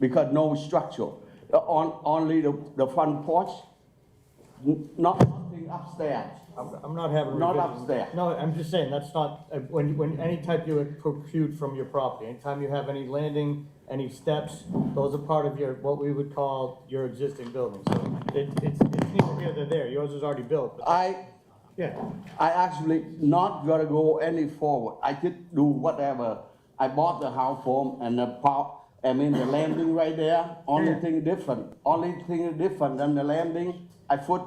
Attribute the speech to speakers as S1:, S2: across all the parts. S1: because no structure. Uh, On, only the, the front porch, n- not, nothing upstairs.
S2: I'm, I'm not having.
S1: Not
S2: revisions.
S1: upstairs.
S2: No, I'm just saying, that's not, uh, when, when, any type you protrude from your property, anytime you have any landing, any steps, those are part of your, what we would call your existing building, so it, it's, it's neither here nor there, yours is already built, but,
S1: I,
S2: yeah.
S1: I actually not gonna go any forward. I just do whatever. I bought the house form and the pop, I mean, the landing right there, only
S2: Yeah.
S1: thing different, only thing different than the landing, I put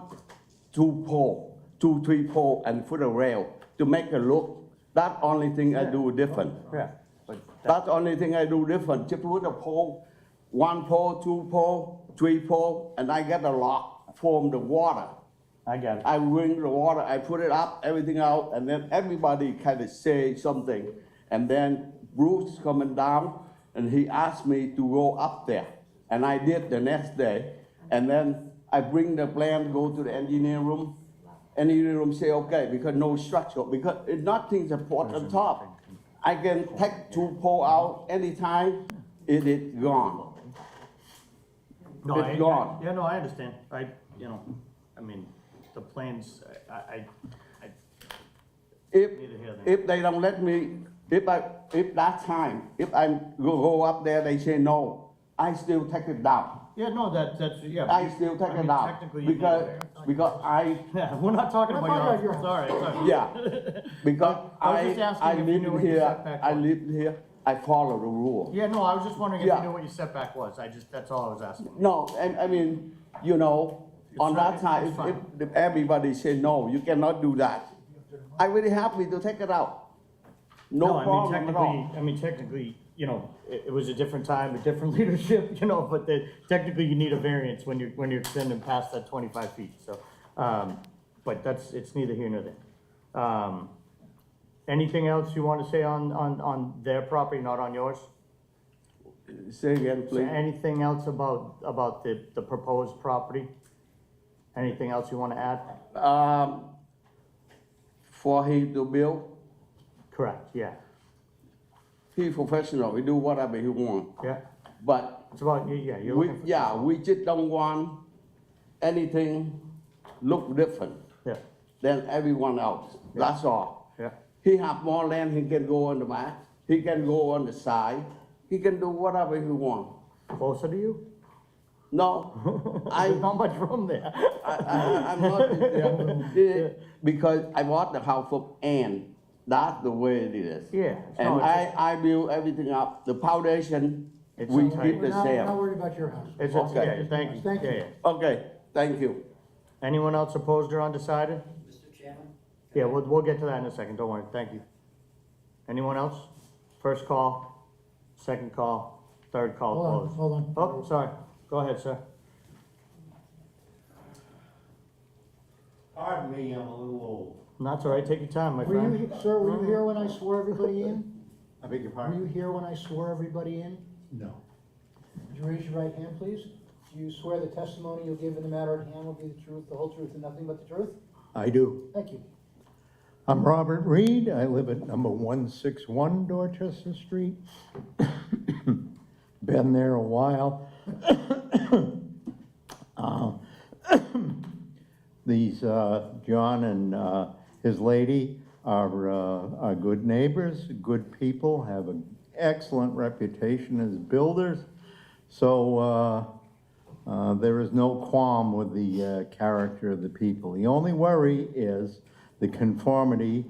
S1: two pole, two, three pole and put a rail to make a look. That only thing I do different.
S2: Yeah, but
S1: That's the only thing I do different, just put a pole, one pole, two pole, three pole, and I get a lock from the water.
S2: I got it.
S1: I bring the water, I put it up, everything out, and then everybody kind of say something. And then Bruce coming down, and he asked me to go up there, and I did the next day. And then I bring the plan, go to the engineer room, engineer room say, okay, because no structure, because it- nothing support on top. I can take two pole out anytime, it is gone.
S2: No,
S1: It's
S2: I- I-
S1: gone.
S2: Yeah, no, I understand, I, you know, I mean, the plans, I, I, I,
S1: If,
S2: Need to hear that.
S1: if they don't let me, if I, if that time, if I go, go up there, they say no, I still take it down.
S2: yeah, no, that, that's, yeah. but
S1: I
S2: you-
S1: still take
S2: mean,
S1: it down,
S2: Technically, you need a
S1: because,
S2: variance.
S1: because I,
S2: Yeah, we're not talking
S3: We're talking
S2: about
S3: about
S2: your
S3: your
S2: house, sorry, sorry.
S1: yeah, because
S2: I was
S1: I,
S2: just asking
S1: I
S2: if you knew
S1: live
S2: what your
S1: here,
S2: setback
S1: I
S2: was.
S1: live here, I follow the rule.
S2: Yeah, no, I was just wondering if
S1: Yeah.
S2: you knew what your setback was, I just, that's all I was asking.
S1: No, I, I mean, you know, on
S2: It's
S1: that
S2: fine,
S1: time,
S2: it's
S1: if, if- if everybody say no, you cannot do that. I really happy to take it out. No
S2: I mean,
S1: problem at all.
S2: technically- I mean, technically, you know, it, it was a different time, a different leadership, you know, but the, technically you need a variance when you're, when you're extending past that twenty-five feet, so, um, but that's, it's neither here nor there. Um, anything else you wanna say on, on, on their property, not on yours?
S1: Say again,
S2: So
S1: please.
S2: Anything else about, about the, the proposed property? Anything else you wanna add?
S1: um, for him to build.
S2: Correct, yeah,
S1: He professional, he do whatever he want.
S2: yeah,
S1: But
S2: it's about, yeah, you're
S1: we,
S2: looking for.
S1: yeah, we just don't want anything look different
S2: Yeah,
S1: than everyone else. That's all.
S2: yeah,
S1: He have more land, he can go on the back, he can go on the side, he can do whatever he want.
S2: closer to you?
S1: No, I
S2: There's not much room there.
S1: I, I, I'm not in there. because I bought the house from Ann. That's the way it is.
S2: Yeah. No,
S1: And
S2: it's
S1: I, I build everything up. The foundation,
S2: It's
S1: we
S2: okay.
S1: keep the
S3: We're not, we're not
S1: same.
S3: worried about your house.
S2: It's, it's,
S1: Okay.
S2: yeah, thank you,
S3: Thank
S2: yeah,
S3: you.
S2: yeah.
S1: Okay, thank you.
S2: Anyone else opposed or undecided?
S4: Mr. Chairman?
S2: Yeah, we'll, we'll get to that in a second, don't worry, thank you. Anyone else? First call, second call, third
S3: Hold on,
S2: call closed.
S3: hold on.
S2: Oh, sorry, go ahead, sir.
S4: Pardon me, I'm a little old.
S2: That's all right, take your time, my
S3: Were
S2: friend.
S3: you, sir, were you here when I swore everybody in?
S4: I beg your
S3: Were
S4: pardon?
S3: you here when I swore everybody in?
S4: No.
S3: Would you raise your right hand, please? Do you swear the testimony you'll give in the matter at hand will be the truth, the whole truth, and nothing but the truth?
S5: I do.
S3: Thank you.
S5: I'm Robert Reed. I live at number 161 Dorchester Street. Been there a while. Uh, These, uh, John and uh, his lady are uh, are good neighbors, good people, have an excellent reputation as builders. So uh, Uh, There is no qualm with the uh, character of the people. The only worry is the conformity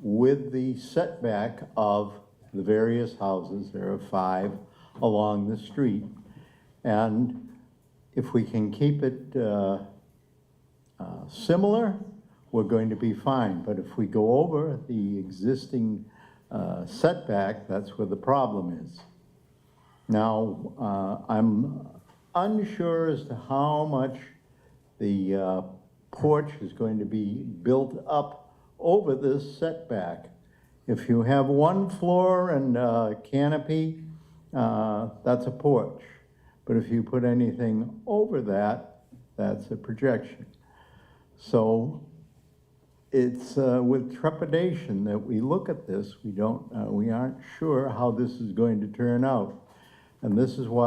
S5: with the setback of the various houses, there are five along the street. And if we can keep it uh, uh, similar, we're going to be fine. But if we go over the existing uh, setback, that's where the problem is. Now, uh, I'm unsure as to how much the uh, porch is going to be built up over this setback. If you have one floor and uh, canopy, uh, that's a porch. But if you put anything over that, that's a projection. So it's uh, with trepidation that we look at this. We don't, uh, we aren't sure how this is going to turn out. And this is why